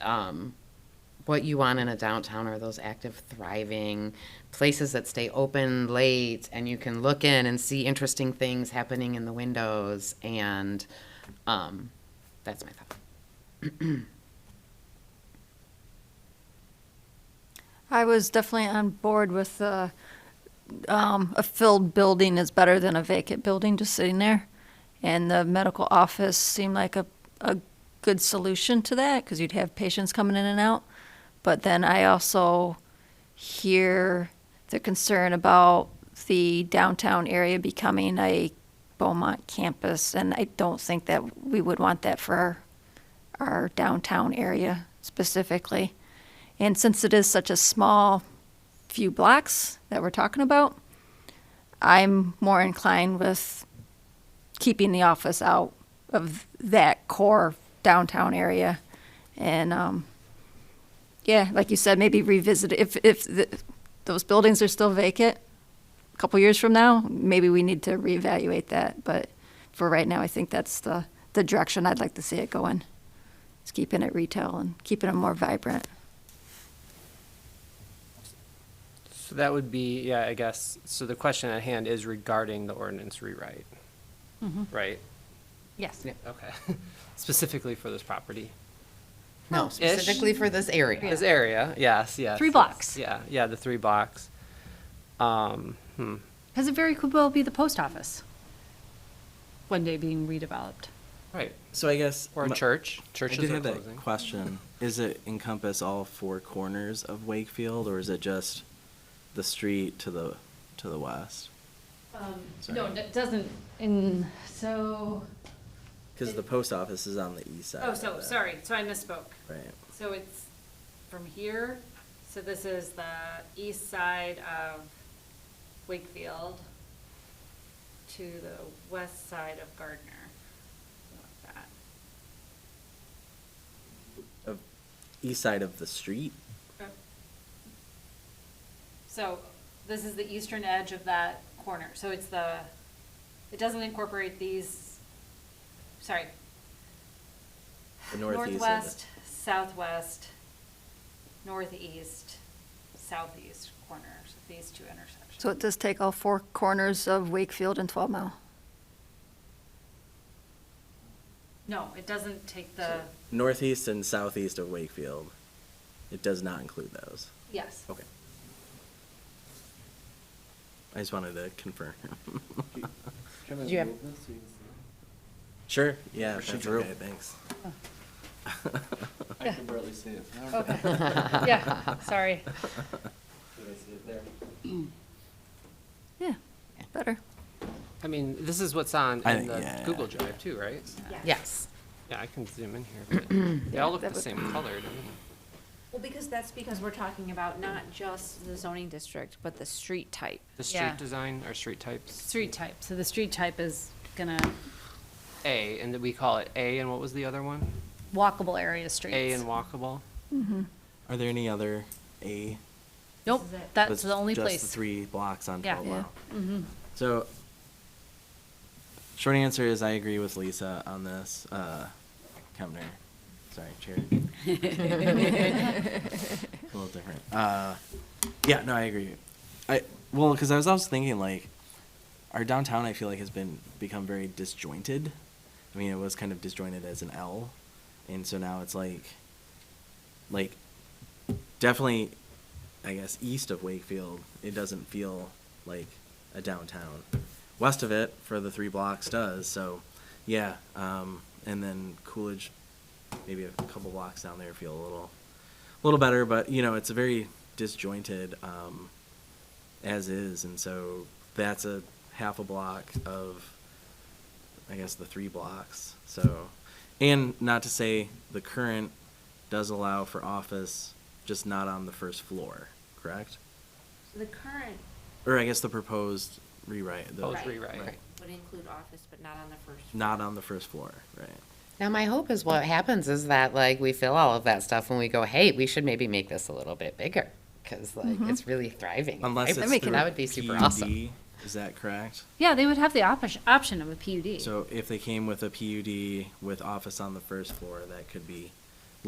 um, what you want in a downtown are those active, thriving places that stay open late and you can look in and see interesting things happening in the windows. And um, that's my thought. I was definitely on board with uh, um, a filled building is better than a vacant building just sitting there. And the medical office seemed like a, a good solution to that because you'd have patients coming in and out. But then I also hear the concern about the downtown area becoming a Beaumont campus. And I don't think that we would want that for our, our downtown area specifically. And since it is such a small few blocks that we're talking about, I'm more inclined with keeping the office out of that core downtown area. And, um, yeah, like you said, maybe revisit, it. if, if the, those buildings are still vacant a couple years from now, maybe we need to reevaluate that. But for right now, I think that's the, the direction I'd like to see it go in. It's keeping it retail and keeping it more vibrant. So that would be, yeah, I guess, so the question at hand is regarding the ordinance rewrite, Mm-hmm. right? Yes. Okay, specifically for this property. No, specifically for this area. This area, yes, yes. Three yes. blocks. Yeah, yeah, the three blocks. Um, hmm, Because it very could well be the post office one day being redeveloped. right, So I guess or a my- church, I churches did are have that closing. question. Is it encompass all four corners of Wakefield, or is it just the street to the to the west? Um, Sorry. No, it doesn't, and so, Because the post office is on the east side. Oh, of so, it. sorry, so I misspoke. Right. So it's from here, so this is the east side of Wakefield to the west side of Gardner. Something like that. Of east side of the street. So this is the eastern edge of that corner, so it's the, it doesn't incorporate these, sorry. The northeast of it. Northwest, southwest, northeast, southeast corners, these two intersections. So it does take all four corners of Wakefield and 12 Mile. No, it doesn't take the, Northeast and southeast of Wakefield. It does not include those. yes. Okay. I just wanted to confirm. Do you have- sure. Yeah. Or she That's drew. okay, thanks. I can barely see it. Oh, Did okay, yeah, sorry. I see it there? Yeah, better. I mean, this is what's on I in think- the yeah. Google Drive too, right? Yes. Yeah, I can zoom in here, but they all look that the would- same color to me. Well, because that's because we're talking about not just the zoning district, but the street type. The Yeah. street design or street types, Street type, so the street type is gonna, A, and then we call it A, and what was the other one? walkable area streets. A and walkable? Are there any other A? Nope, that's It's the only just place. the three blocks on Yeah. 12 Yeah. Mm-hmm. mile. So, short answer is I agree with Lisa on this. Uh, Kemner, sorry, Chair. a little different. Uh, yeah, no, I agree. I well, because I was also thinking like, our downtown I feel like has been become very disjointed. I mean, it was kind of disjointed as an L, and so now it's like, like, definitely I guess east of Wakefield, it doesn't feel like a downtown. West of it, for the three blocks, does so. Yeah, um, and then Coolidge, maybe a couple blocks down there, feel a little, a little better. But you know, it's a very disjointed um, as is, and so that's a half a block of, I guess, the three blocks. So, and not to say the current does allow for office, just not on the first floor, correct? The current Or I guess the proposed rewrite. the- Proposed Right. rewrite. Right. would include office, but not on the first. Not on the first floor, right? Now, my hope is what happens is that like we feel all of that stuff when we go, hey, we should maybe make this a little bit bigger because like it's really thriving. and Unless vibrant. it's through that would be super awesome. PUD, is that correct? Yeah, they would have the option, option of a PUD. So if they came with a PUD with office on the first floor, that could be